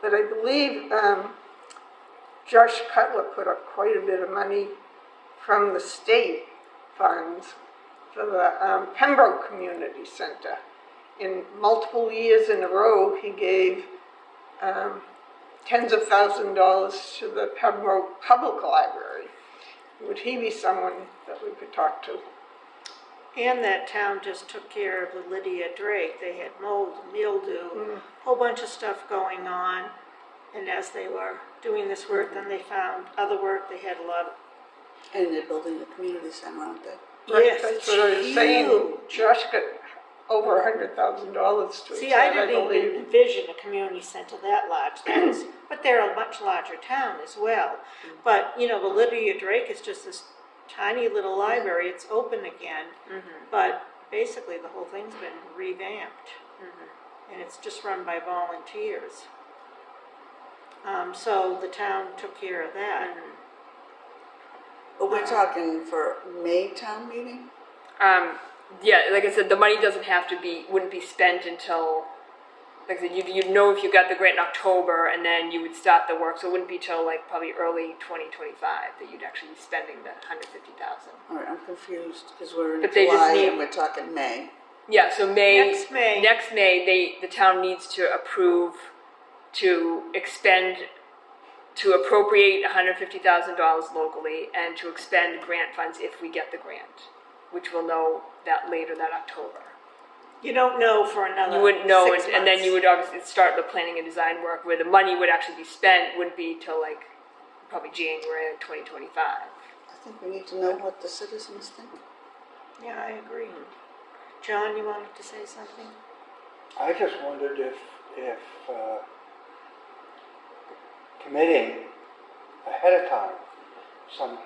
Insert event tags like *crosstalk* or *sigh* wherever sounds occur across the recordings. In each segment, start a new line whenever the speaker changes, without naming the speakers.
But I believe um, Josh Cutler put up quite a bit of money from the state funds for the um, Pembroke Community Center. In multiple years in a row, he gave um, tens of thousands of dollars to the Pembroke Public Library. Would he be someone that we could talk to?
And that town just took care of the Lydia Drake. They had mold,
Mm.
mildew, whole bunch of stuff going on. And as they were doing this work, then they found other work. They had a lot of
And they're building a community center, aren't they?
Right,
Yes,
That's what I was
it's
saying,
huge.
Josh got over a hundred thousand dollars to it.
See, I didn't even envision a community center that large, that's, but they're a much larger town as well. But, you know, the Lydia Drake is just this tiny little library, it's open again,
Mm-hmm.
but basically the whole thing's been revamped.
Mm-hmm.
And it's just run by volunteers. Um, so the town took care of that.
Mm-hmm.
But we're talking for May town meeting?
Um, yeah, like I said, the money doesn't have to be, wouldn't be spent until, like I said, you'd, you'd know if you got the grant in October and then you would start the work, so it wouldn't be till like probably early twenty twenty-five that you'd actually be spending the hundred fifty thousand.
All right, I'm confused because we're in
But they just
July
need-
and we're talking May.
Yeah, so May.
Next May.
Next May, they, the town needs to approve to expend, to appropriate hundred fifty thousand dollars locally and to expend grant funds if we get the grant, which we'll know that later, that October.
You don't know for another
You wouldn't know,
six
and, and then you
months.
would obviously start the planning and design work where the money would actually be spent wouldn't be till like probably January of 2025.
I think we need to know what the citizens think.
Yeah, I agree. John, you wanted to say something?
I just wondered if, if uh, committing ahead of time some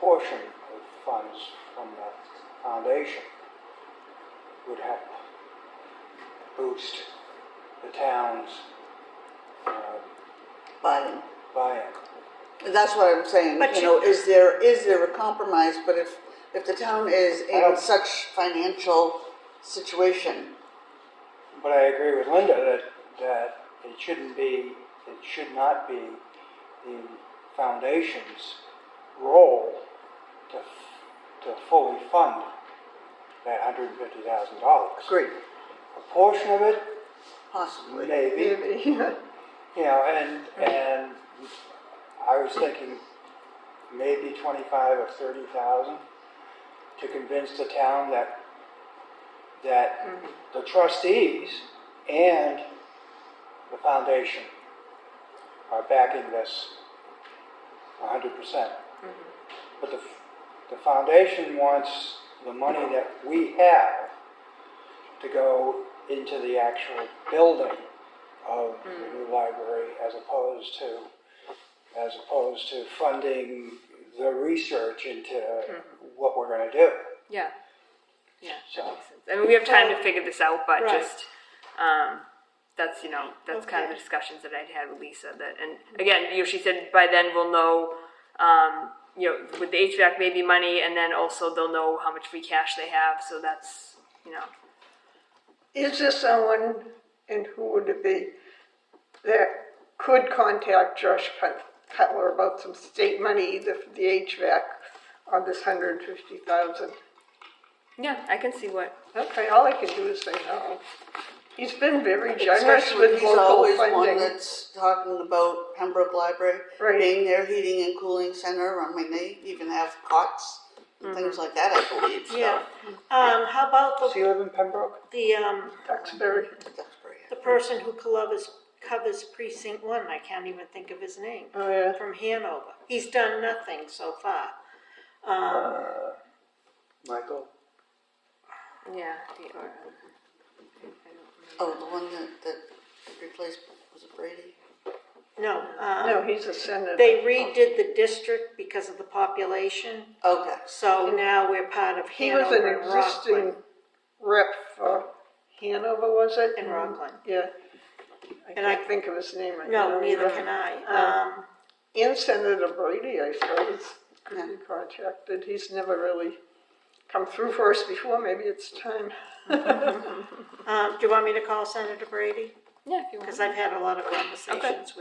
portion of funds from the foundation would help boost the town's uh,
Buy-in.
buy-in.
And That's what I'm saying,
But
you
you-
know, is there, is there a compromise? But if, if the town is in
don't-
such financial situation,
But I agree with Linda that, that it shouldn't be, it should not be the foundation's role to, f- to fully fund that hundred and fifty thousand dollars.
great,
A portion of it,
possibly.
maybe,
Maybe, *laughs*
you know, and, and I was thinking maybe twenty-five or thirty thousand to convince the town that, that the trustees and the foundation are backing this hundred percent. But the, f- the foundation wants the money that we have to go into the actual building of the new library as opposed to, as opposed to funding the research into what we're gonna do.
Yeah, yeah, that
So-
makes sense. I mean, we have time to figure this out, but
Right.
just um, that's you know that's kind of the
Okay.
discussions that I'd had with Lisa. That and again, you know, she said by then we'll know. Um, you know, with the HVAC maybe money, and then also they'll know how much free cash they have. So that's you know
Is there someone, and who would it be, that could contact Josh Cut- Cutler about some state money, either for the HVAC or this hundred and fifty thousand?
yeah, I can see what
Okay, all I can do is say no. He's been very generous
Especially
with
he's
local
always one
funding.
that's talking about Pembroke Library
Right.
being their heating and cooling center. I mean, they even have cots and things
Mm-hmm.
like that, I believe. So
Yeah, um, how about
Does
the,
he live in Pembroke?
the, um,
Duxbury.
that's pretty
the person who covers, covers precinct one, I can't even think of his name.
Oh, yeah.
From Hanover, he's done nothing so far.
Michael?
yeah. the- or-
Oh, the one that, that replaced was it Brady?
No, um,
No, he's a senator.
they redid the district because of the population,
Okay.
so now we're part of
He was an
Hanover and
existing
Rockland.
rep for Hanover, was it?
And Rockland.
Yeah. I
And I-
can't think of his name. I
No,
can't
neither
remember.
can
Uh.
I, um,
And Senator Brady, I suppose, could be
Yeah.
contacted. He's never really come through for us before. Maybe it's time.
uh, um, do you want me to call Senator Brady?
Yeah, if you want.
Because I've had a lot of conversations with